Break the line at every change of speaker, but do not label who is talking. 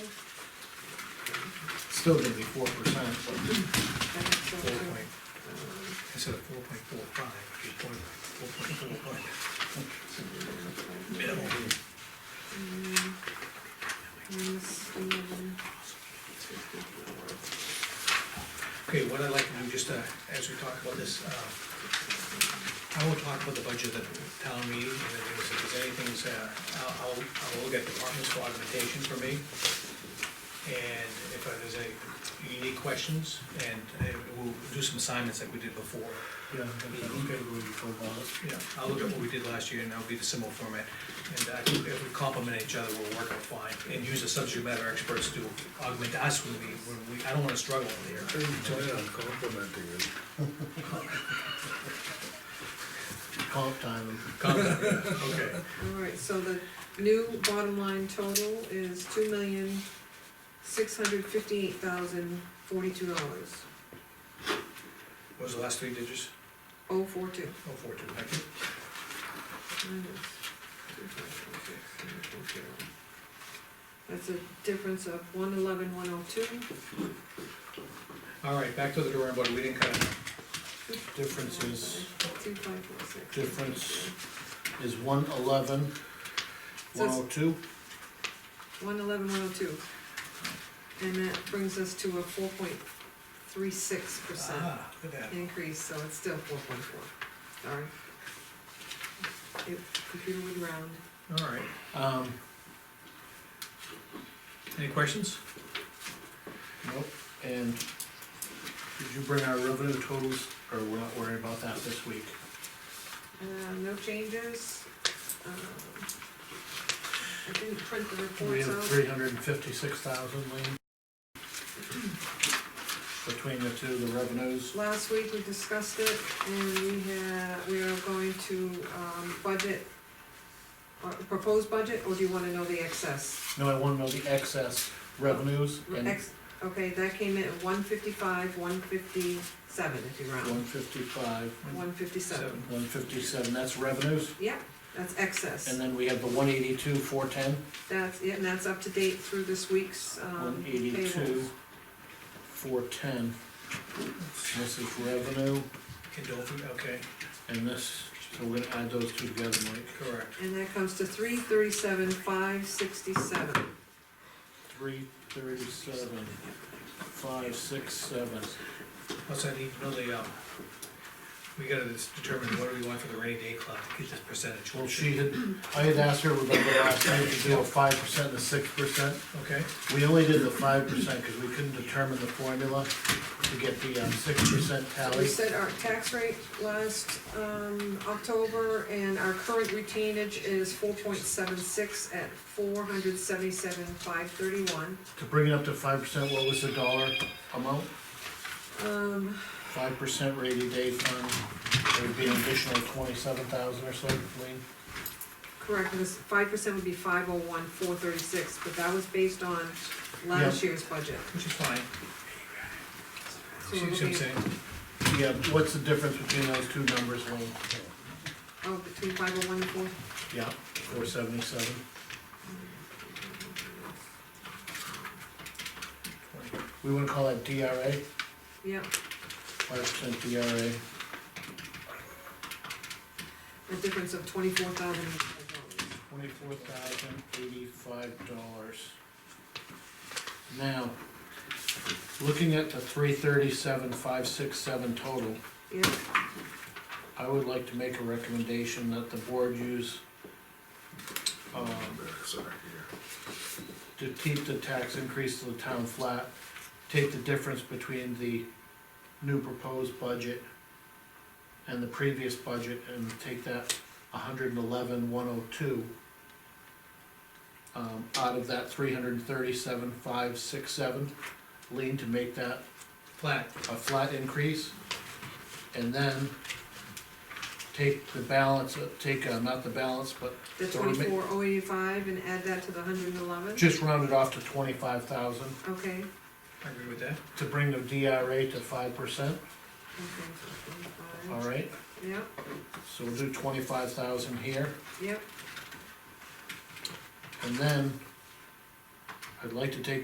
still gonna be four percent, but
That's,
four
uh,
point, instead of four point four five, it'd be point, four point four five. Minimal.
minus eleven.
Okay, what I'd like to do, just, uh, as we talk about this, uh, I will talk about the budget at the town meeting, and then if there's anything's, uh, I'll, I'll, I'll look at departments for augmentation for me. And if there's any unique questions, and uh, we'll do some assignments like we did before.
Yeah, okay, we can talk about it.
Yeah, I'll look at what we did last year, and that'll be the similar format. And I think if we complement each other, we'll work out fine, and use the subject matter experts to augment us when we, when we, I don't wanna struggle here.
I enjoy on complimenting it. Comp time.
Comment, okay.
All right, so the new bottom line total is two million, six hundred fifty-eight thousand, forty-two dollars,
What was the last three digits?
oh four two.
Oh, four, two, thank you.
That's a difference of one eleven, one oh two.
All right, back to the drawing board, we didn't cut it.
Difference is,
Two five four six.
Difference. is one eleven, one oh two,
One eleven, one oh two. And that brings us to a four point three six percent
Ah, look at that.
increase, so it's still four point four, sorry. It, computer would round,
All right,
um,
any questions?
nope, and did you bring our revenue totals, or we're not worried about that this week?
uh, no changes, um. I didn't print the
We
reports
have
out.
three hundred and fifty-six thousand, Lean. Between the two, the revenues,
Last week, we discussed it, and we had, we are going to, um, budget, uh, proposed budget, or do you wanna know the excess?
no, I wanna know the excess revenues and
Ex, okay, that came in at one fifty-five, one fifty-seven, if you
one
round,
fifty-five,
one fifty-seven.
one fifty-seven, that's revenues,
Yeah, that's excess,
and then we have the one eighty-two, four ten,
that's, yeah, and that's up to date through this week's, um,
one
payrolls.
eighty-two, four ten. This is revenue,
Condolfi, okay,
and this, so we're gonna add those two together, Mike,
correct.
And that comes to three thirty-seven, five sixty-seven.
three thirty-seven, five, six, seven.
Also, I need to know the, um, we gotta just determine what do we want for the rainy day club, get this percentage.
Well, she had, I had asked her, remember last night, to do a five percent and a six percent,
Okay,
we only did the five percent, cause we couldn't determine the formula to get the, um, six percent
So We
tally.
set our tax rate last, um, October, and our current retainage is four point seven six at four hundred seventy-seven, five thirty-one.
To bring it up to five percent, what was the dollar amount?
Um,
Five percent rainy day fund, there would be an additional twenty-seven thousand or so, Lean.
correct, this five percent would be five oh one, four thirty-six, but that was based on last year's budget.
which is fine,
So
see
we're
what I'm
looking,
saying?
Yeah, what's the difference between those two numbers, Lean?
oh, between five oh one and four,
Yeah, four seventy-seven. We wanna call that DRA,
yeah,
five percent DRA.
a difference of twenty-four thousand dollars.
Twenty-four thousand eighty-five dollars. Now, looking at the three thirty-seven, five six seven total,
Yeah,
I would like to make a recommendation that the board use, um, to keep the tax increase to the town flat, take the difference between the new proposed budget and the previous budget and take that hundred and eleven, one oh two um, out of that three hundred and thirty-seven, five, six, seven, lean to make that
Flat,
a flat increase, and then take the balance, uh, take, uh, not the balance, but
the
So we make-
twenty-four oh eighty-five, and add that to the hundred and eleven,
just round it off to twenty-five thousand
okay, okay.
I agree with that.
to bring the DRA to five percent,
so 25.
all
Uh,
right?
Yep,
So we'll do twenty-five thousand here,
yep.
and then I'd like to take